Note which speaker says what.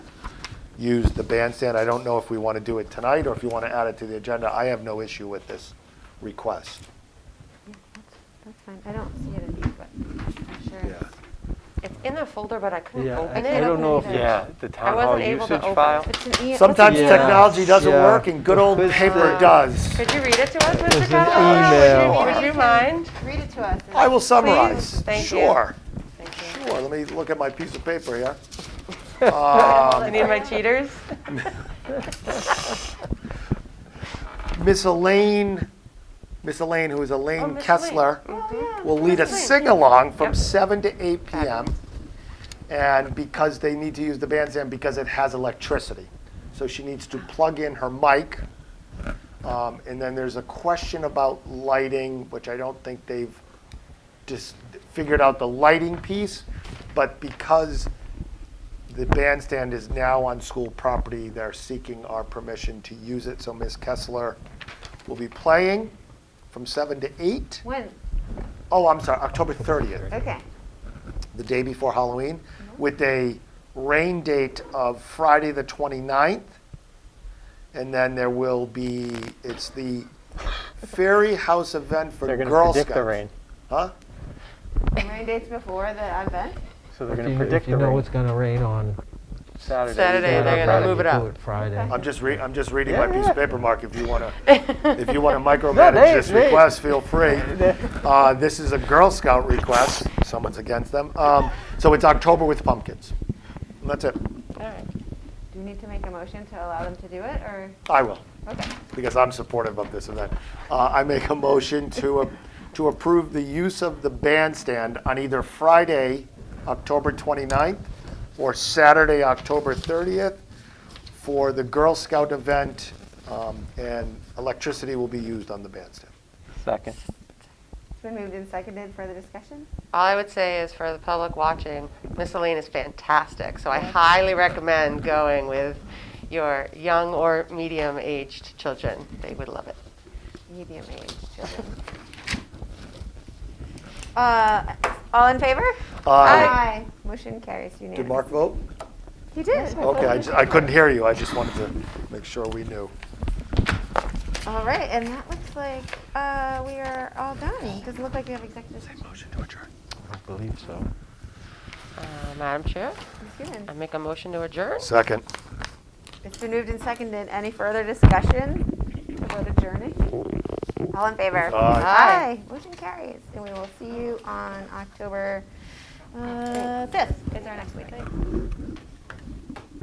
Speaker 1: use the bandstand. I don't know if we want to do it tonight or if you want to add it to the agenda. I have no issue with this request.
Speaker 2: That's fine, I don't see it in here, but I'm sure.
Speaker 1: Yeah.
Speaker 2: it's- It's in the folder, but I couldn't
Speaker 3: Yeah,
Speaker 2: open
Speaker 3: I-
Speaker 2: it.
Speaker 3: I don't know if
Speaker 2: either.
Speaker 3: it's
Speaker 4: Yeah, the town hall
Speaker 2: wasn't able to
Speaker 4: usage
Speaker 2: open it.
Speaker 4: file.
Speaker 2: It's an e-
Speaker 1: Sometimes
Speaker 2: what's
Speaker 3: Yeah.
Speaker 2: it-
Speaker 1: technology doesn't
Speaker 3: yeah.
Speaker 1: work and good old
Speaker 3: It's
Speaker 1: paper
Speaker 4: uh,
Speaker 3: the-
Speaker 1: does.
Speaker 2: Could you read it to us,
Speaker 3: It's
Speaker 2: Mr.
Speaker 3: an
Speaker 2: Costello?
Speaker 3: email.
Speaker 2: Would you- Would you mind?
Speaker 5: Read it to us.
Speaker 1: I will summarize.
Speaker 2: Thank you.
Speaker 1: Sure,
Speaker 2: Thank you.
Speaker 1: sure. Let me look at my piece of paper here.
Speaker 2: I need my cheaters.
Speaker 1: Miss Elaine, Miss Elaine, who is Elaine
Speaker 2: Miss
Speaker 1: Kessler, will lead a sing-along from 7 to 8 p.m. And because they need to use the bandstand because it has electricity. So she needs to plug in her mic. Um, And then there's a question about lighting, which I don't think they've just figured out the lighting piece. But because the bandstand is now on school property. They're seeking our permission to use it, so Ms. Kessler will be playing from seven to eight.
Speaker 5: When?
Speaker 1: Oh, I'm sorry, October thirtieth,
Speaker 5: Okay.
Speaker 1: the day before Halloween, with a rain date of Friday, the 29th. And then there will be, it's the Fairy House event for
Speaker 4: They're going to
Speaker 1: Girl
Speaker 4: predict the rain.
Speaker 1: Scouts. Huh?
Speaker 5: Rain dates before the event?
Speaker 4: So they're
Speaker 3: If
Speaker 4: going
Speaker 3: you-
Speaker 4: to predict
Speaker 3: If you
Speaker 4: the
Speaker 3: know
Speaker 4: rain
Speaker 3: it's gonna rain on
Speaker 4: Saturday.
Speaker 2: Saturday,
Speaker 3: Saturday,
Speaker 2: they're gonna
Speaker 3: Friday,
Speaker 2: move it
Speaker 3: do
Speaker 2: up.
Speaker 3: Friday.
Speaker 1: I'm just re, I'm just reading my
Speaker 4: Yeah,
Speaker 1: piece
Speaker 4: yeah.
Speaker 1: of paper, Mark, if you want to, if you want to micromanage
Speaker 4: they-
Speaker 1: this
Speaker 4: they-
Speaker 1: request, feel free. Uh, This is a Girl Scout request, someone's against them. Um, So it's October with pumpkins. And That's it,
Speaker 5: Do you need to make a motion to allow them to do it, or?
Speaker 1: I will,
Speaker 5: Okay.
Speaker 1: because I'm supportive of this event. Uh, I make a motion to, a- to approve the use of the bandstand on either Friday, October 29th, or Saturday, October 30th, for the Girl Scout event, um, and electricity will be used on the bandstand.
Speaker 4: Second.
Speaker 5: It's been moved and seconded. Further discussion?
Speaker 2: All I would say is for the public watching, Miss Elaine is fantastic, so I highly recommend going with your young or medium-aged children. They would love it.
Speaker 5: Medium-aged children. Uh, all in favor?
Speaker 1: Aye.
Speaker 5: Motion carries unanimously.
Speaker 1: Uh, Did Mark vote?
Speaker 5: He did.
Speaker 1: Okay, I ju- I couldn't hear you, I just wanted to make sure we knew.
Speaker 5: All right, and that looks like, uh, we are all done. Doesn't look like we have executive session.
Speaker 1: Motion to adjourn.
Speaker 3: I believe so.
Speaker 2: Uh, Madam Chair,
Speaker 5: Ms. Hewens.
Speaker 2: I make a motion to adjourn?
Speaker 1: Second.
Speaker 5: It's been moved and seconded. Any further discussion about adjourning? All in favor?
Speaker 2: Aye.
Speaker 5: Aye. Motion carries. And we will see you on October uh, 5th is our next meeting.